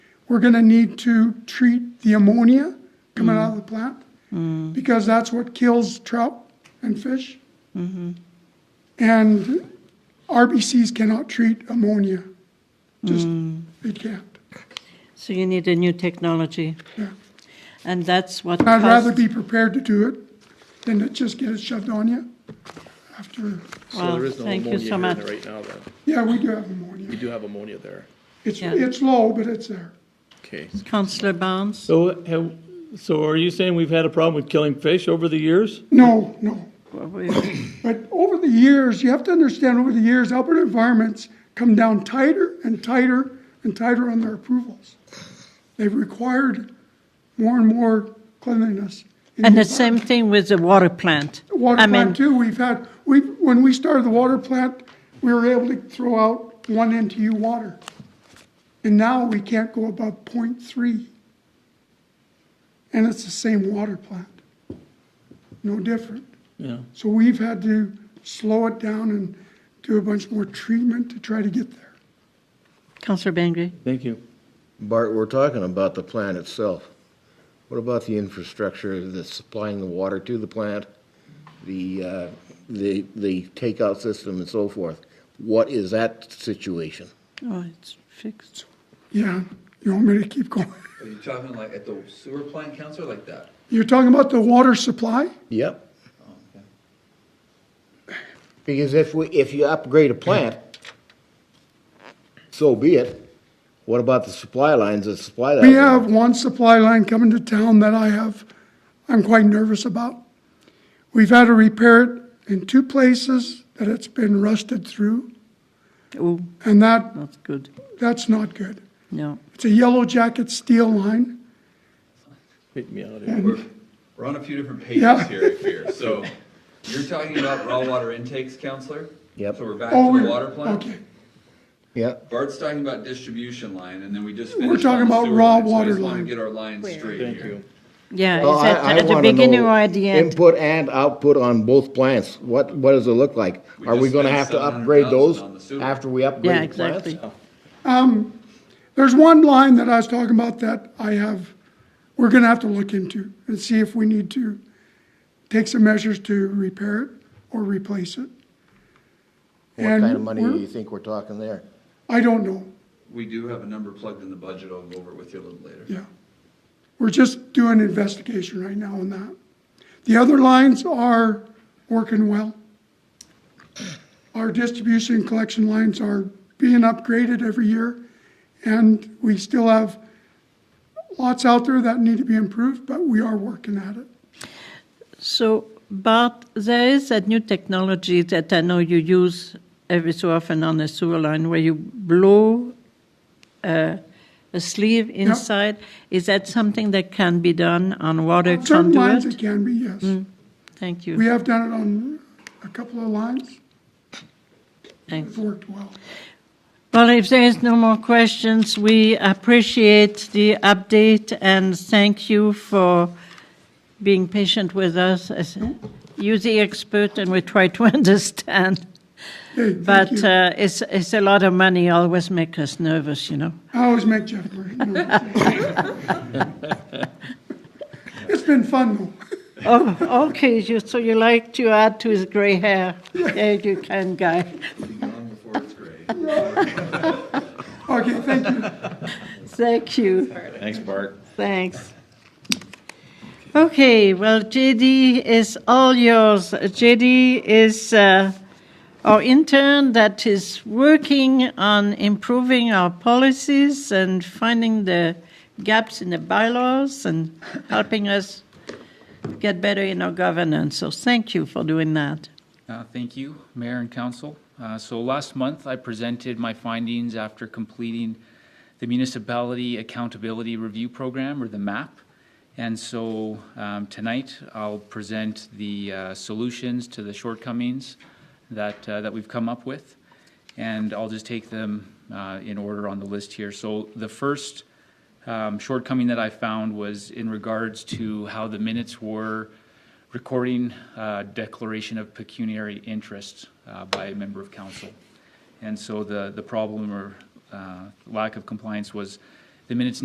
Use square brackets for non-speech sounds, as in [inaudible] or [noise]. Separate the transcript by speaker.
Speaker 1: we're gonna need to treat the ammonia coming out of the plant, because that's what kills trout and fish. And RBCs cannot treat ammonia, just, they can't,
Speaker 2: So you need a new technology,
Speaker 1: yeah.
Speaker 2: and that's what
Speaker 1: And I'd rather
Speaker 2: caused,
Speaker 1: be prepared to do it than to just get it shoved on you after,
Speaker 2: Wow,
Speaker 3: So there is no
Speaker 2: thank you
Speaker 3: ammonia
Speaker 2: so
Speaker 3: here in there
Speaker 2: much.
Speaker 3: right now, then.
Speaker 1: yeah, we do have
Speaker 3: We
Speaker 1: ammonia.
Speaker 3: do have ammonia there.
Speaker 1: It's,
Speaker 2: Yeah.
Speaker 1: it's low, but it's there.
Speaker 3: Okay.
Speaker 2: Councillor Barnes,
Speaker 4: So, have, so are you saying we've had a problem with killing fish over the years?
Speaker 1: No, no,
Speaker 2: well, we-
Speaker 1: But over the years, you have to understand over the years, Alberta environments come down tighter and tighter and tighter on their approvals. They've required more and more cleanliness. in
Speaker 2: and
Speaker 1: the
Speaker 2: the same thing with the water plant. I
Speaker 1: Water
Speaker 2: mean,
Speaker 1: plant too, we've had, we, when we started the water plant, we were able to throw out one NTU water. And now we can't go above 0.3, And it's the same water plant. No different.
Speaker 4: Yeah.
Speaker 1: So we've had to slow it down and do a bunch more treatment to try to get there.
Speaker 2: Councillor Bengry,
Speaker 4: Thank you.
Speaker 5: Bart, we're talking about the plant itself. What about the infrastructure that's supplying the water to the plant, the, uh, the, the takeout system and so forth? What is that situation?
Speaker 2: oh, it's fixed.
Speaker 1: Yeah, you want me to keep going? [laughs]
Speaker 6: Are you talking like at the sewer plant, counselor, like that?
Speaker 1: You're talking about the water supply?
Speaker 5: Yep. Because if we, if you upgrade a plant, so be it. What about the supply lines that supply that?
Speaker 1: We
Speaker 5: water?
Speaker 1: have one supply line coming to town that I have, I'm quite nervous about. We've had to repair it in two places that it's been rusted through,
Speaker 2: Oh,
Speaker 1: and that,
Speaker 2: not good,
Speaker 1: that's not good.
Speaker 2: no.
Speaker 1: It's a yellow jacket steel line.
Speaker 4: Take me out of here.
Speaker 6: We're, we're on a few different
Speaker 1: Mm-hmm. Yeah.
Speaker 6: pages here, I fear, so you're talking about raw water intakes, counselor?
Speaker 5: Yep.
Speaker 6: So we're back
Speaker 1: Oh,
Speaker 6: to
Speaker 1: we
Speaker 6: the water plant?
Speaker 1: Okay,
Speaker 5: Yeah,
Speaker 6: Bart's talking about distribution line, and then we just
Speaker 1: We're
Speaker 6: finished.
Speaker 1: talking
Speaker 6: on the
Speaker 1: about
Speaker 6: sewer
Speaker 1: raw
Speaker 6: line, so I
Speaker 1: water
Speaker 6: just wanna
Speaker 1: line.
Speaker 6: Get our lines straight
Speaker 4: Thank
Speaker 6: here.
Speaker 4: you.
Speaker 2: Yeah,
Speaker 5: Well,
Speaker 2: is that
Speaker 5: Oh, I- I
Speaker 2: at the
Speaker 5: wanna
Speaker 2: beginning
Speaker 5: know
Speaker 2: or at the end?
Speaker 5: Input and output on both plants, what, what does it look like?
Speaker 6: We
Speaker 5: Are we
Speaker 6: just
Speaker 5: gonna
Speaker 6: spent
Speaker 5: have to upgrade
Speaker 6: 700,000
Speaker 5: those
Speaker 6: on the sewer.
Speaker 5: after we upgrade
Speaker 2: Yeah,
Speaker 5: the plants?
Speaker 2: exactly.
Speaker 1: There's one line that I was talking about that I have, we're gonna have to look into and see if we need to take some measures to repair it or replace it.
Speaker 5: What kind of
Speaker 1: And
Speaker 5: money do
Speaker 1: we're-
Speaker 5: you think we're talking there?
Speaker 1: I don't know,
Speaker 6: We do have a number plugged in the budget, I'll go over it with you a little later.
Speaker 1: yeah. We're just doing an investigation right now on that. The other lines are working well. Our distribution and collection lines are being upgraded every year, and we still have lots out there that need to be improved, but we are working at it.
Speaker 2: So, Bart, there is that new technology that I know you use every so often on a sewer line where you blow uh, a sleeve inside. Is that something that can be done on water
Speaker 1: Certain lines it
Speaker 2: conduit?
Speaker 1: can be,
Speaker 2: Mm.
Speaker 1: yes.
Speaker 2: Thank
Speaker 1: We
Speaker 2: you.
Speaker 1: have done it on a couple of lines,
Speaker 2: Thanks.
Speaker 1: it's worked well.
Speaker 2: Well, if there is no more questions, we appreciate the update and thank you for being patient with us. As- You're the expert and we try to [laughs] understand.
Speaker 1: Hey, thank
Speaker 2: But
Speaker 1: you.
Speaker 2: uh, it's, it's a lot of money, always make us nervous, you know.
Speaker 1: I always make Jeff Murray. nervous. It's been fun, though.
Speaker 2: [laughs] Oh, okay, you, so you like to add to his gray hair. Yeah, you can, guy.
Speaker 6: Long before it's gray.
Speaker 1: Okay, thank you.
Speaker 2: Thank you,
Speaker 3: Thanks, Bart.
Speaker 2: thanks. Okay, well, JD is all yours. JD is uh, our intern that is working on improving our policies and finding the gaps in the bylaws and helping us get better in our governance. So thank you for doing that.
Speaker 7: Uh, Thank you, Mayor and Council. Uh, So last month, I presented my findings after completing the Municipality Accountability Review Program, or the MAP. And so um, tonight, I'll present the uh, solutions to the shortcomings that, uh, that we've come up with. And I'll just take them uh, in order on the list here. So the first um, shortcoming that I found was in regards to how the minutes were recording uh, declaration of pecuniary interest uh, by a member of council. And so the, the problem or uh, lack of compliance was the minutes